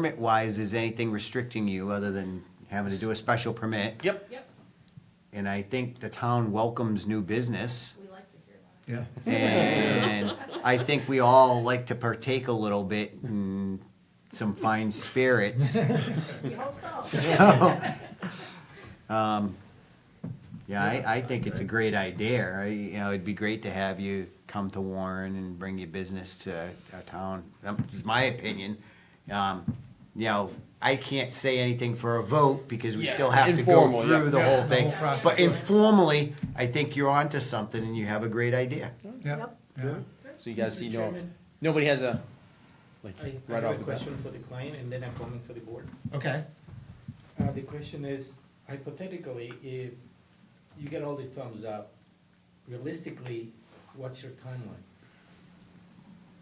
permit-wise, is anything restricting you other than having to do a special permit? Yep. Yep, And I think the town welcomes new business. we like to hear that. Yeah. And I think we all like to partake a little bit in some fine spirits. We hope so. So, um, yeah, I, I think it's a great idea. I, you know, it'd be great to have you come to Warren and bring your business to a town. Um, it's my opinion. Um, you know, I can't say anything for a vote because we Yeah, still it's have to go informal, yeah. through the Yeah, whole the thing. whole process. But informally, I think you're onto something and you have a great idea. Yeah, Yep. yeah. So you guys Mr. see no, Chairman, nobody has a, like, I I right have a off the bat. question for the client and then a comment for the board. Okay. Uh, the question is hypothetically, if you get all the thumbs up, realistically, what's your timeline?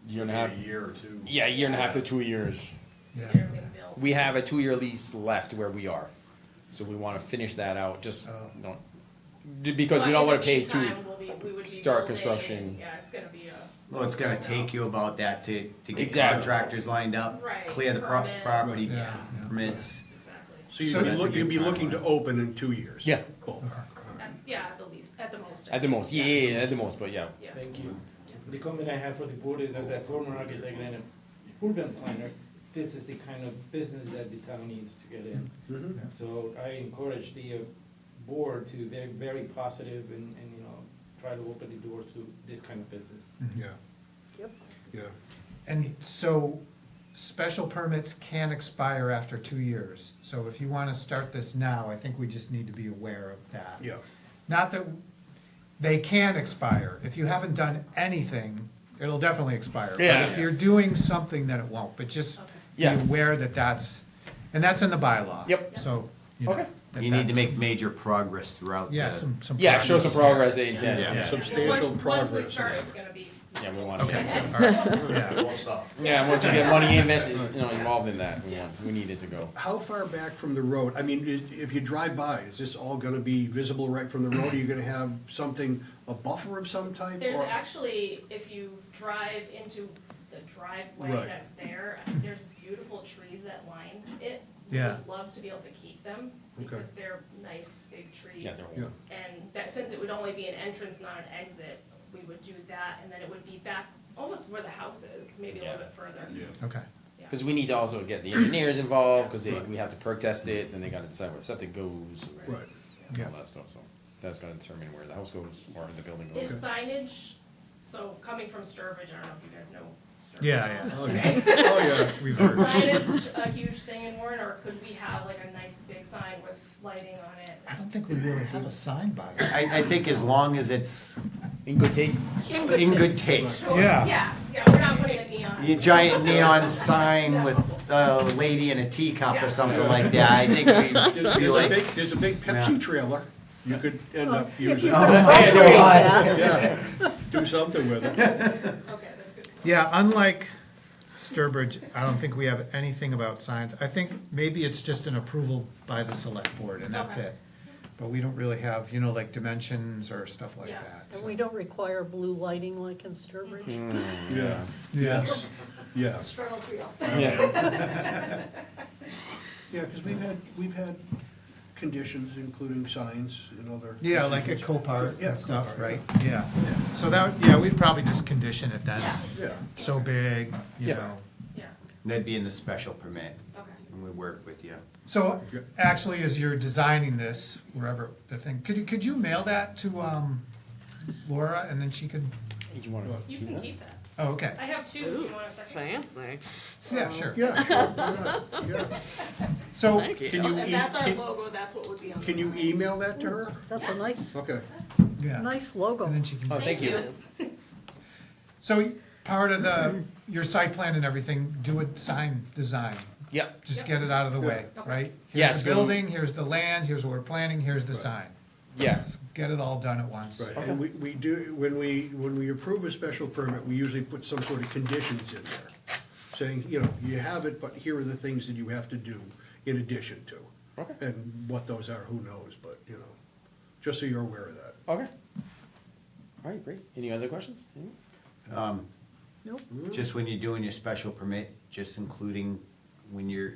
Year and a half, year or two. yeah, a year and a half to two years. Yeah. Here we build. We have a two-year lease left where we are, so we wanna finish that out, just, Oh. don't, because we don't wanna pay too. start construction. Yeah, it's gonna be a. Well, it's gonna take you about that to, to get Exactly. contractors lined up, Right, clear the pro- permits. property Yeah. yeah. permits. Exactly. So you'd So be, that's a look- good you'd be looking to timeline. open in two years? Yeah. Both. Uh-huh. At- Yeah, at the least, at the most. At the most, yeah, yeah, yeah, at the most, but yeah. Yeah. Thank you. The comment I have for the board is as a former architect and a urban planner, this is the kind of business that the town needs to get in. Mm-hmm. Mhm. So I encourage the uh, board to be very positive and, and, you know, try to open the doors to this kind of business. Yeah, Yep. yeah. And so special permits can expire after two years. So if you want to start this now, I think we just need to be aware of that. Yeah. Not that, they can expire. If you haven't done anything, it'll definitely expire. But Yeah. if you're doing something, then it won't, but just be Yeah. aware that that's, and that's in the bylaw. Yep. So, you know. Okay. that You need to that- make major progress throughout Yeah, the- some, some. Yeah, show some progress, they intend, Yeah. yeah. Substantial Once- Once progress. we start, it's gonna be. Yeah, we want- Okay, all right, yeah. Yeah, once we get money invested, you know, involved in that, we want, we need it to go. How far back from the road, I mean, i- if you drive by, is this all gonna be visible right from the road? Are you gonna have something, a buffer of some type? There's or- actually, if you drive into the driveway Right. that's there, there's beautiful trees that line it. Yeah. We'd Love to be able to keep them Okay. because they're nice big trees. Yeah, they're old. Yeah, And that, since it would only be an entrance, not an exit, we would do that and then it would be back almost where the house is, maybe a little Yeah. bit further. Okay, Because we need to also get the engineers involved, because they, we have to perk test it, then they gotta decide where septic goes, right, and yeah, all that stuff, so. That's gonna determine where the house goes, or the building Is goes. signage, so coming from Sturbridge, I don't know if you guys know Sturbridge. yeah, yeah. oh, yeah, oh, yeah. We've Is heard. sign is a huge thing in Warren, or could we have like a nice big sign with lighting on it? I don't think we really have a sign by it. I, I think as long as it's In good taste? in good taste. Sure, Yeah. Yes, yeah, we're not putting a neon. Your giant neon sign with a lady in a teacup or something like that, I think There- we'd be There's a like. big, there's a big Yeah. Pepsi trailer, you could Oh, end up using, yeah, do something with it. Okay, that's good. to know. Yeah, unlike Sturbridge, I don't think we have anything about signs. I think maybe it's just an approval by the select board and that's Okay. it. But we don't really have, you know, like dimensions or stuff like Yeah. that. And so- we don't require blue lighting like in Sturbridge? Hmm. Yeah, yes, yes. Struggle's real. Yeah. Yeah, because we've had, we've had conditions, including signs and other. Yeah, like at conditions. Copart Yeah, and stuff, Copart, right? Yeah. So that, yeah, we'd probably just condition it then. Yeah, Yeah, So big, you Yeah. know. yeah, That'd be in the special permit, okay. and we work with you. So actually, as you're designing this, wherever the thing, could you, could you mail that to, um, Laura and then she could, You wanna You keep can that? keep that. oh, okay. I have two, if you want a second? Fancy. Yeah, sure. yeah, sure, why not? yeah. So Thank you. can you, And that's our e- logo, that's what would be on the Can you sign. email that to her? That's a nice, Okay. yeah, nice logo. and then she Oh, can, thank you. so part of the, your site plan and everything, do a sign design. Yep, Just get it out of the way, Okay. right? Yes, Here's the go- building, here's the land, here's what we're planning, here's the sign. yes, Get it all done at once. Right, and we, we do, when we, when we approve a special permit, we usually put some sort of conditions in there. Saying, you know, you have it, but here are the things that you have to do in addition to. Okay. And what those are, who knows, but, you know, just so you're aware of that. okay. All right, great. Any other questions? Any? Just when you're doing your special permit, just including when you're